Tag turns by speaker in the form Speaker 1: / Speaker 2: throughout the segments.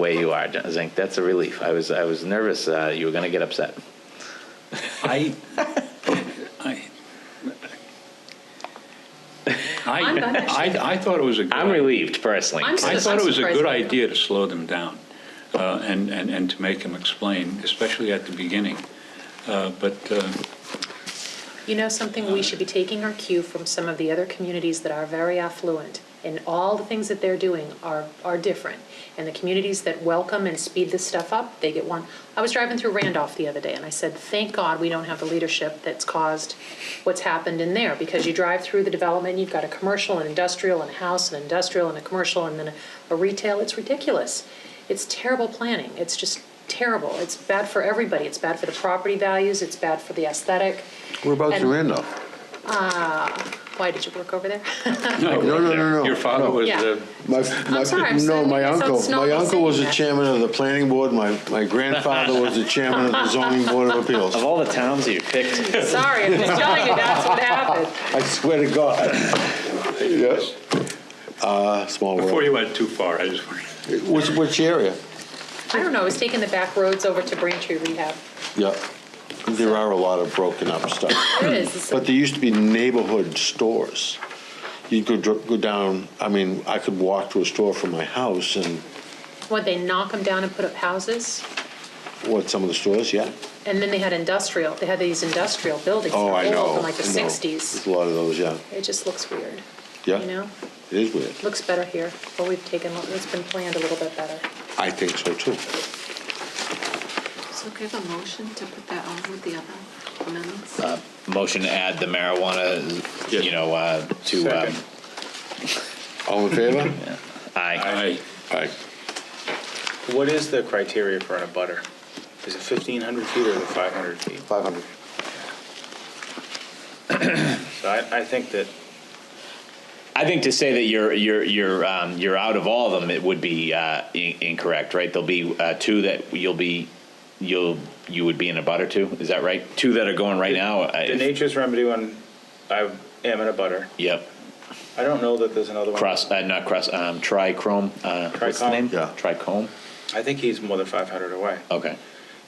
Speaker 1: way you are, Zink. That's a relief. I was, I was nervous uh, you were going to get upset.
Speaker 2: I, I,
Speaker 3: I'm done,
Speaker 2: I,
Speaker 3: actually.
Speaker 2: I, I thought it was a good.
Speaker 1: I'm relieved personally.
Speaker 3: I'm
Speaker 2: I thought it was a
Speaker 3: surprised.
Speaker 2: good idea to slow them down uh, and, and, and to make them explain, especially at the beginning. Uh, But uh,
Speaker 3: You know something, we should be taking our cue from some of the other communities that are very affluent, and all the things that they're doing are, are different. And the communities that welcome and speed this stuff up, they get one. I was driving through Randolph the other day, and I said, thank God we don't have the leadership that's caused what's happened in there, because you drive through the development, you've got a commercial, an industrial, and a house, an industrial, and a commercial, and then a- a retail, it's ridiculous. It's terrible planning, it's just terrible, it's bad for everybody, it's bad for the property values, it's bad for the aesthetic.
Speaker 4: Whereabouts you
Speaker 3: And-
Speaker 4: in though?
Speaker 3: Why, did you work over there?
Speaker 4: No, no, no, no.
Speaker 2: your father
Speaker 4: no.
Speaker 2: was, uh,
Speaker 3: Yeah.
Speaker 2: the-
Speaker 4: My, my,
Speaker 3: sorry, I'm
Speaker 4: no,
Speaker 3: sorry,
Speaker 4: my
Speaker 3: it's so
Speaker 4: uncle, my
Speaker 3: snobby
Speaker 4: uncle was
Speaker 3: saying
Speaker 4: the
Speaker 3: that.
Speaker 4: chairman of the planning board. My, my grandfather was the chairman of the zoning board of appeals.
Speaker 1: Of all the towns you picked,
Speaker 3: Sorry, I'm just telling you, that's what happened.
Speaker 4: I swear to God. Yes. Uh, small
Speaker 2: before
Speaker 4: world.
Speaker 2: you went too far, I just,
Speaker 4: Which, which area?
Speaker 3: I don't know, I was taking the back roads over to Braintree Rehab.
Speaker 4: Yeah. There are a lot of broken up stuff.
Speaker 3: It is,
Speaker 4: But there used to be neighborhood stores. You could dr- go down, I mean, I could walk to a store from my house and, Hmm.
Speaker 3: what, they knock them down and put up houses?
Speaker 4: what, some of the stores, yeah.
Speaker 3: And then they had industrial, they had these industrial buildings.
Speaker 4: Oh, I
Speaker 3: that were
Speaker 4: know.
Speaker 3: old From like the
Speaker 4: I know. There's
Speaker 3: sixties.
Speaker 4: a lot of those, yeah,
Speaker 3: It just looks weird,
Speaker 4: yeah.
Speaker 3: you know?
Speaker 4: It is weird.
Speaker 3: Looks better here, but we've taken, it's been planned a little bit better.
Speaker 4: I think so too.
Speaker 5: So give a motion to put that on with the other amendments?
Speaker 1: motion to add the marijuana, you
Speaker 2: Yes.
Speaker 1: know, uh, to, um,
Speaker 2: Second.
Speaker 4: All in favor?
Speaker 1: aye.
Speaker 2: I,
Speaker 4: Aye.
Speaker 6: What is the criteria for an abutter? Is it 1,500 feet or the 500 feet?
Speaker 4: Five hundred.
Speaker 6: So I, I think that,
Speaker 1: I think to say that you're, you're, you're, um, you're out of all of them, it would be, uh, in- incorrect, right? There'll be, uh, two that you'll be, you'll, you would be in a butter to, is that right? Two that are going right now? uh, I-
Speaker 6: the nature's remedy when I am in a butter.
Speaker 1: Yep.
Speaker 6: I don't know that there's another one.
Speaker 1: Cross, uh, not cross, um, trichrome, uh, what's the
Speaker 6: Trichome.
Speaker 1: name?
Speaker 4: Yeah.
Speaker 1: Trichome?
Speaker 6: I think he's more than 500 away.
Speaker 1: Okay.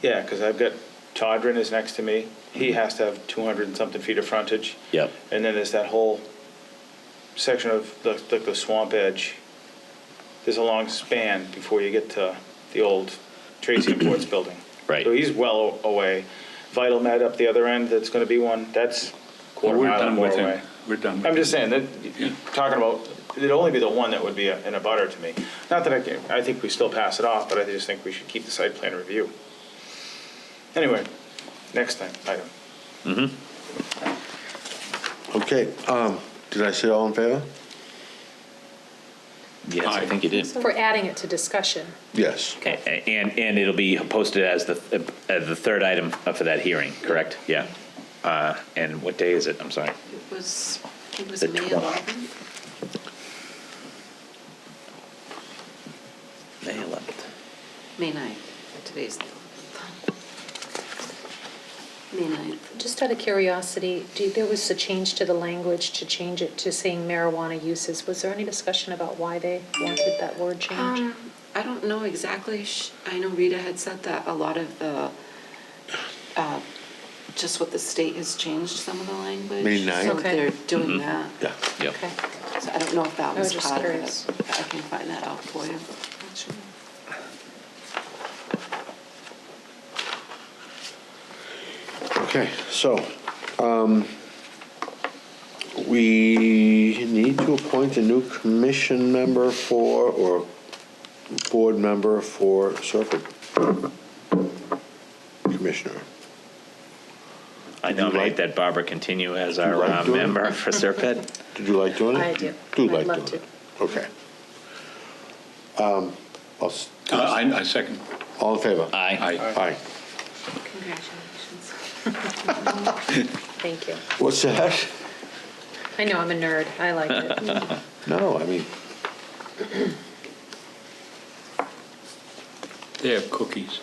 Speaker 6: Yeah, because I've got, Todrin is next to me. He has to have 200 and something feet of frontage.
Speaker 1: Mm-hmm. Yep.
Speaker 6: And then there's that whole section of the, like the swamp edge. There's a long span before you get to the old Tracy Imports building.
Speaker 1: Right.
Speaker 6: So he's well a- away. Vital Med up the other end, that's gonna be one, that's quarter
Speaker 2: we're
Speaker 6: mile
Speaker 2: done
Speaker 6: more
Speaker 2: with
Speaker 6: away.
Speaker 2: him. We're done with him.
Speaker 6: I'm just saying that, you're talking about, it'd only be the one that would be a- in a butter to me. Not that I can, I think we still pass it off, but I just think we should keep the site plan review. Anyway, next time, item.
Speaker 4: Okay, um, did I say all in favor?
Speaker 1: Yes, I
Speaker 2: Aye.
Speaker 1: think you did.
Speaker 3: For adding it to discussion.
Speaker 4: Yes.
Speaker 1: A- a- And, and it'll be posted as the, uh, the third item for that hearing, correct? Yeah. Uh, And what day is it? I'm sorry.
Speaker 5: It was, it was
Speaker 1: The
Speaker 5: May
Speaker 1: twen-
Speaker 5: 11th?
Speaker 1: May 11th.
Speaker 5: May 9th, today's the 11th. May 9th.
Speaker 3: Just out of curiosity, do, there was a change to the language to change it to saying marijuana uses. Was there any discussion about why they wanted that word change?
Speaker 5: Um, I don't know exactly, sh- I know Rita had said that a lot of the, uh, just what the state has changed some of the language.
Speaker 4: May 9th?
Speaker 5: So
Speaker 3: Okay.
Speaker 5: they're doing that.
Speaker 4: Yeah.
Speaker 1: Yep.
Speaker 3: Okay,
Speaker 5: So I don't know if that
Speaker 3: I was
Speaker 5: was
Speaker 3: just
Speaker 5: part of
Speaker 3: curious.
Speaker 5: it. I can find that out for you, actually.
Speaker 4: Okay, so, um, we need to appoint a new commission member for, or board member for Serpent. Commissioner.
Speaker 1: I
Speaker 4: nominate
Speaker 1: nominate that Barbara continue as
Speaker 4: our,
Speaker 1: our
Speaker 4: Would you like uh, to?
Speaker 1: member
Speaker 4: member
Speaker 1: for Serpent.
Speaker 4: Did you like doing it?
Speaker 3: I do.
Speaker 4: Do
Speaker 3: I'd
Speaker 4: like
Speaker 3: love
Speaker 4: doing it? Okay. Um, I'll s-
Speaker 2: Uh, I, I second.
Speaker 4: all in favor?
Speaker 1: Aye.
Speaker 2: I,
Speaker 4: Aye.
Speaker 5: Congratulations.
Speaker 3: thank you.
Speaker 4: What's that?
Speaker 3: I know, I'm a nerd. I like it.
Speaker 4: No, I mean,
Speaker 2: they have cookies.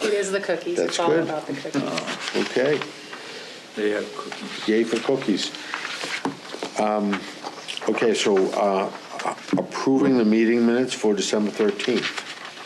Speaker 3: It is the cookies.
Speaker 4: That's
Speaker 3: It's all
Speaker 4: good.
Speaker 3: about the cookies.
Speaker 4: okay.
Speaker 2: They have cookies.
Speaker 4: Yay for cookies. Um, Okay, so uh, approving the meeting minutes for December 13th.